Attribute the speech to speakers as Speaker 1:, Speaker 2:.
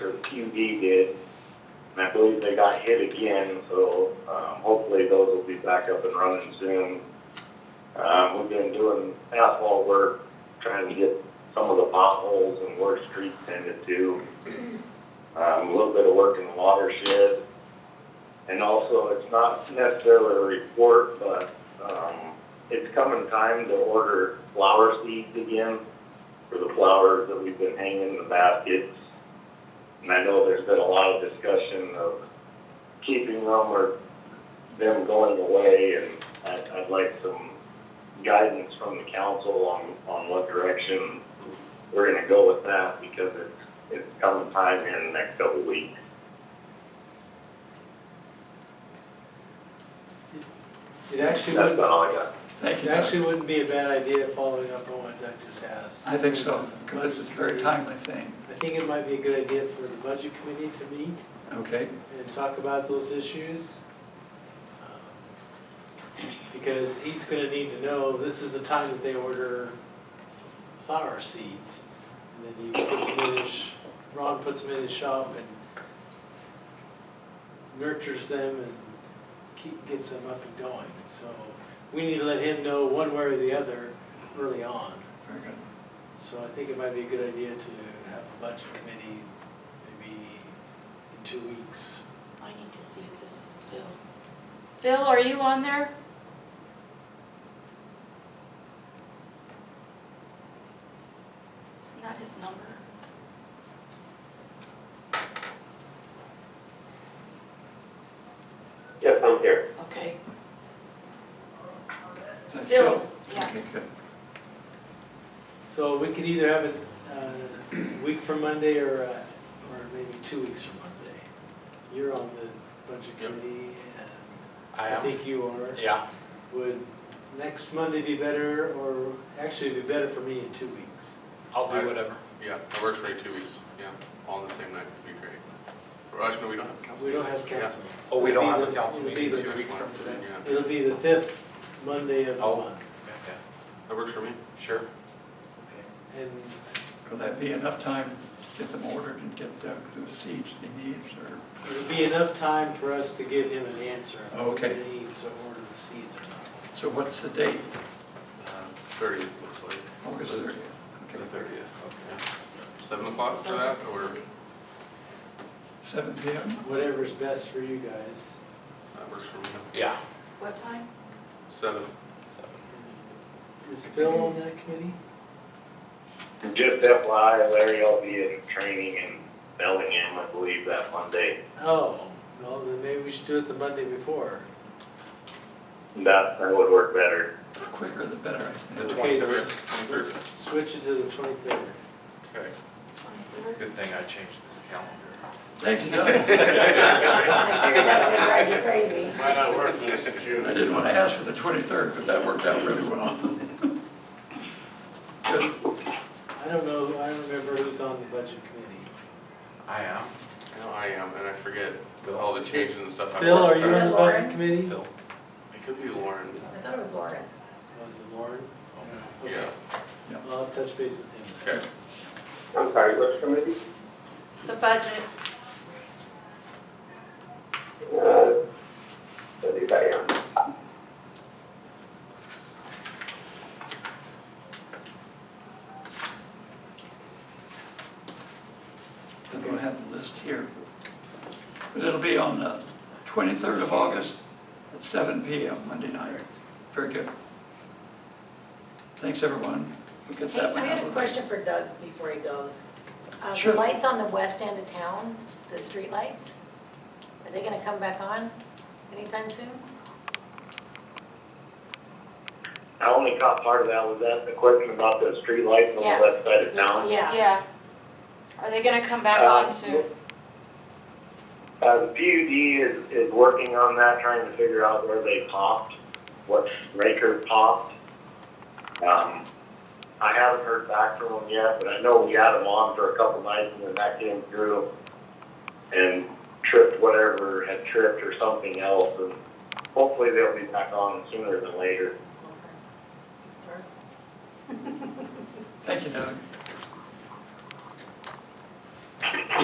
Speaker 1: QD did, and I believe they got hit again, so um, hopefully those will be back up and running soon. Um, We've been doing asphalt work, trying to get some of the potholes and where streets tended to. Um, A little bit of work in the watershed. And also, it's not necessarily a report, but um, it's coming time to order flower seeds again for the flowers that we've been hanging in the baskets. And I know there's been a lot of discussion of keeping them or them going away, and I'd, I'd like some guidance from the council on, on what direction we're gonna go with that, because it's, it's coming time here in the next couple of weeks.
Speaker 2: It actually
Speaker 1: That's
Speaker 2: would,
Speaker 1: about all I got.
Speaker 3: Thank
Speaker 2: it
Speaker 3: you, Doug.
Speaker 2: actually wouldn't be a bad idea following up on what Doug just asked.
Speaker 3: I think so, because this is a very timely thing,
Speaker 2: I think it might be a good idea for the budget committee to meet
Speaker 3: okay?
Speaker 2: and talk about those issues. um, Because he's gonna need to know, this is the time that they order flower seeds. And then he puts them in his, Ron puts them in his shop and nurtures them and keep, gets them up and going. So we need to let him know one way or the other early on.
Speaker 3: Very good.
Speaker 2: So I think it might be a good idea to have a budget committee maybe in two weeks.
Speaker 4: I need to see if this is Phil. Phil, are you on there? Isn't that his number?
Speaker 1: Yes, I'm here.
Speaker 4: Okay.
Speaker 3: Is that Phil?
Speaker 4: Phil's, yeah.
Speaker 3: Okay, good.
Speaker 2: So we could either have it uh, a week from Monday or, uh, or maybe two weeks from Monday. You're on the budget
Speaker 5: Yep.
Speaker 2: committee and
Speaker 5: I
Speaker 2: I
Speaker 5: am,
Speaker 2: think you are.
Speaker 5: yeah.
Speaker 2: Would next Monday be better or actually it'd be better for me in two weeks?
Speaker 5: I'll do
Speaker 6: I-
Speaker 5: whatever.
Speaker 6: Yeah, it works for me two weeks, yeah, all on the same night would be great. Or actually, no, we don't have council.
Speaker 2: We don't
Speaker 6: meetings.
Speaker 2: have council. meetings.
Speaker 5: Oh, we don't have a
Speaker 2: It'll be the-
Speaker 5: council
Speaker 2: it'll be
Speaker 6: Yeah,
Speaker 5: meeting
Speaker 2: the-
Speaker 6: two weeks from today, yeah,
Speaker 2: It'll be the fifth Monday of the
Speaker 5: Oh.
Speaker 2: month.
Speaker 5: Yeah,
Speaker 6: that works for me.
Speaker 5: Sure.
Speaker 2: And
Speaker 3: Will that be enough time to get them ordered and get Doug the seeds he needs, or,
Speaker 2: It'll be enough time for us to give him an answer. on what
Speaker 3: Okay.
Speaker 2: He needs to order the seeds or not.
Speaker 3: so what's the date?
Speaker 6: Uh, Thirtieth looks like,
Speaker 3: August
Speaker 6: The-
Speaker 3: thirtieth?
Speaker 6: the
Speaker 3: Okay.
Speaker 6: thirtieth, yeah. Seven o'clock for that, or
Speaker 3: Seven P M?
Speaker 2: Whatever's best for you guys.
Speaker 6: that works for me,
Speaker 5: Yeah.
Speaker 4: What time?
Speaker 6: seven.
Speaker 2: Is Phil on that committee?
Speaker 1: Just FYI, Larry, I'll be in training in Bellingham, I believe, that Monday.
Speaker 2: Oh, well, then maybe we should do it the Monday before.
Speaker 1: That, that would work better.
Speaker 3: The quicker the better, I think.
Speaker 5: The
Speaker 2: Okay,
Speaker 5: twenty-third.
Speaker 2: s- Let's switch it to the twenty-third.
Speaker 5: Okay.
Speaker 4: Twenty-third?
Speaker 5: Good thing I changed this calendar.
Speaker 3: Thanks, Doug.
Speaker 7: Drive you crazy.
Speaker 6: Might not work this June.
Speaker 3: I didn't want to ask for the twenty-third, but that worked out really well. Good.
Speaker 2: I don't know, I don't remember who's on the budget committee.
Speaker 5: I am.
Speaker 6: No, I am, and I forget with all the changes and stuff. I
Speaker 2: Phil,
Speaker 6: watched
Speaker 2: are you
Speaker 6: that.
Speaker 2: on the
Speaker 7: Lauren?
Speaker 2: budget committee?
Speaker 5: Phil.
Speaker 6: It could be Lauren,
Speaker 7: I thought it was Lauren.
Speaker 2: Was Oh, it Lauren? Okay.
Speaker 6: Oh, yeah,
Speaker 2: Well, I'll touch base with him.
Speaker 6: okay.
Speaker 1: I'm sorry, which committee?
Speaker 4: The budget,
Speaker 1: Uh, anybody on?
Speaker 3: I don't have the list here. But it'll be on the 23rd of August at 7 PM, Monday night. Very good. Thanks, everyone. We'll get
Speaker 7: Hey,
Speaker 3: that one
Speaker 7: I
Speaker 3: out
Speaker 7: had a
Speaker 3: of the way.
Speaker 7: question for Doug before he goes. Uh,
Speaker 3: Sure.
Speaker 7: The lights on the west end of town, the street lights, are they gonna come back on anytime soon?
Speaker 1: I only caught part of that, was that the question about the streetlights on
Speaker 7: Yeah.
Speaker 1: the west side of town?
Speaker 7: Yeah,
Speaker 4: yeah. Are they gonna come back
Speaker 1: Uh,
Speaker 4: on soon?
Speaker 1: Uh, the PUD is, is working on that, trying to figure out where they popped, what breaker popped. Um, I haven't heard back from them yet, but I know we had them on for a couple nights and then that came through and tripped whatever had tripped or something else, and hopefully they'll be back on sooner than later.
Speaker 3: Thank you, Doug.